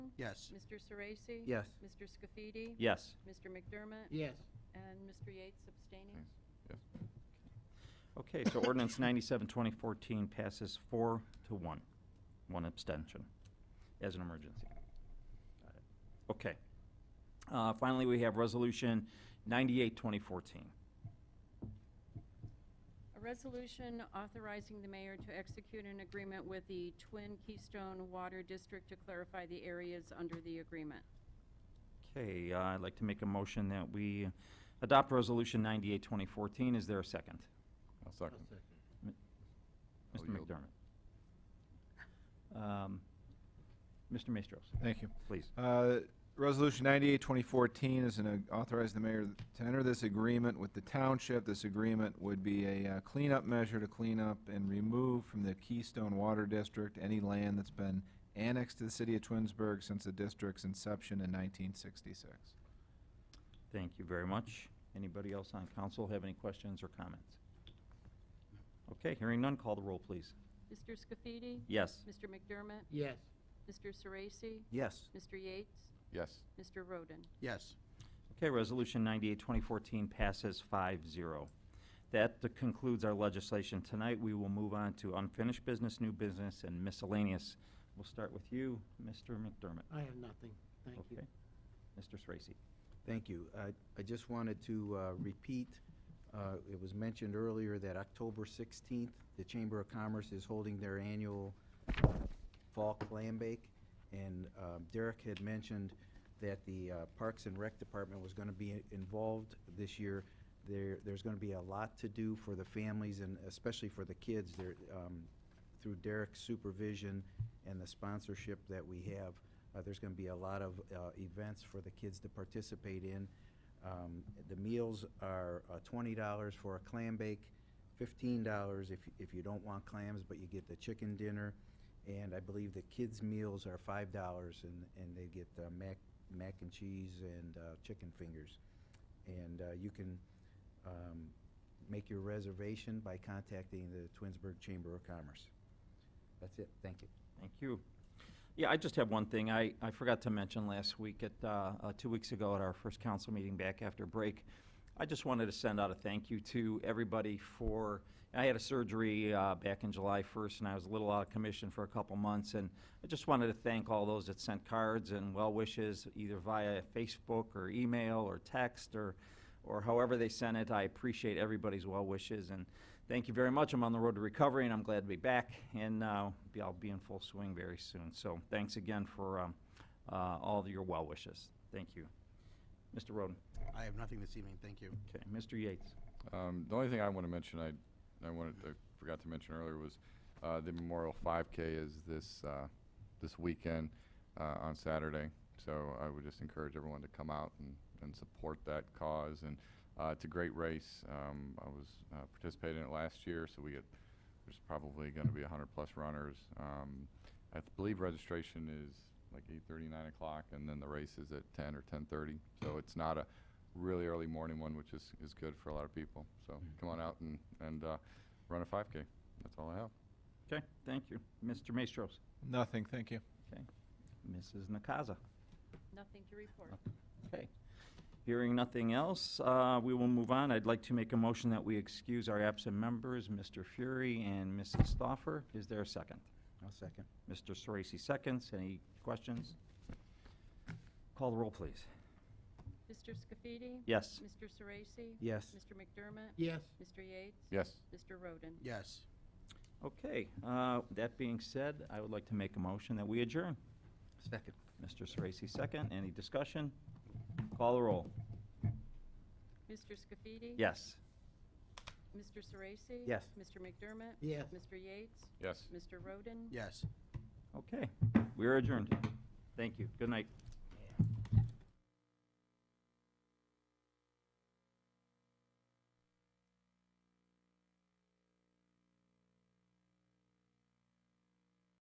Yes. Mr. Sorese? Yes. Mr. Scafidi? Yes. Mr. McDermott? Yes. And Mr. Yates abstaining? Okay, so ordinance 97, 2014 passes four to one, one abstention as an emergency. Got it. Okay. Uh, Finally, we have resolution 98, 2014. A resolution authorizing the mayor to execute an agreement with the Twin Keystone Water District to clarify the areas under the agreement. Okay, uh, I'd like to make a motion that we adopt resolution 98, 2014. Is there a second? I'll second. Oh, I'll Mr. yield. McDermott. Um, Mr. Maestros, Thank you. please. Uh, Resolution 98, 2014 is an uh, authorize the mayor to enter this agreement with the township. This agreement would be a uh, cleanup measure to clean up and remove from the Keystone Water District any land that's been annexed to the city of Twinsburg since the district's inception in 1966. Thank you very much. Anybody else on council have any questions or comments? Okay, hearing none, call the roll, please. Mr. Scafidi? Yes. Mr. McDermott? Yes. Mr. Sorese? Yes. Mr. Yates? Yes. Mr. Roden? Yes. Okay, Resolution 98, 2014 passes 5-0. That concludes our legislation tonight. We will move on to unfinished business, new business, and miscellaneous. We'll start with you, Mr. McDermott. I have nothing. Thank you. Okay. Mr. Sorese. Thank you. I- I just wanted to uh, repeat, uh, it was mentioned earlier that October 16th, the Chamber of Commerce is holding their annual uh, Fall Clam Bake, and um, Derek had mentioned that the uh, Parks and Rec Department was going to be involved this year. There, there's going to be a lot to do for the families and especially for the kids. There, um, through Derek's supervision and the sponsorship that we have, uh, there's going to be a lot of uh, events for the kids to participate in. Um, The meals are uh, $20 for a clam bake, $15 if, if you don't want clams, but you get the chicken dinner. And I believe the kids' meals are $5 and, and they get uh, mac, mac and cheese and uh, chicken fingers. And uh, you can um, make your reservation by contacting the Twinsburg Chamber of Commerce. That's it, thank you. Thank you. Yeah, I just have one thing. I, I forgot to mention last week at, uh, uh, two weeks ago at our first council meeting back after break. I just wanted to send out a thank you to everybody for, I had a surgery, uh, back in July first and I was a little out of commission for a couple months and I just wanted to thank all those that sent cards and well wishes either via Facebook or email or text or, or however they sent it. I appreciate everybody's well wishes and thank you very much. I'm on the road to recovery, and I'm glad to be back, and uh, be- I'll be in full swing very soon. So thanks again for um, uh, all of your well wishes. Thank you. Mr. Roden. I have nothing this evening, thank you. Okay, Mr. Yates. Um, the only thing I want to mention, I, I wanted, I forgot to mention earlier was, uh, the Memorial 5K is this, uh, this weekend, uh, on Saturday. So I would just encourage everyone to come out and, and support that cause. And, uh, it's a great race. Um, I was, uh, participating in it last year, so we get, there's probably going to be 100 plus runners. Um, I believe registration is like 8:30, 9 o'clock, and then the race is at 10 or 10:30. So it's not a really early morning one, which is, is good for a lot of people. So come on out and, and uh, run a 5K. That's all I have. Okay, thank you. Mr. Maestros. Nothing, thank you. Mrs. Nakaza. Nothing to report. Okay. Hearing nothing else, uh, we will move on. I'd like to make a motion that we excuse our absent members, Mr. Fury and Mrs. Stoffer. Is there a second? I'll second. Mr. Sorese seconds. Any questions? Call the roll, please. Mr. Scafidi? Yes. Mr. Sorese? Yes. Mr. McDermott? Yes. Mr. Yates? Yes. Mr. Roden? Yes. Okay, uh, that being said, I would like to make a motion that we adjourn. Second. Mr. Sorese, second. Any discussion? Call the roll. Mr. Scafidi? Yes. Mr. Sorese? Yes. Mr. McDermott? Yes. Mr. Yates? Yes. Mr. Roden? Yes. Okay, we are adjourned. Thank you. Good night.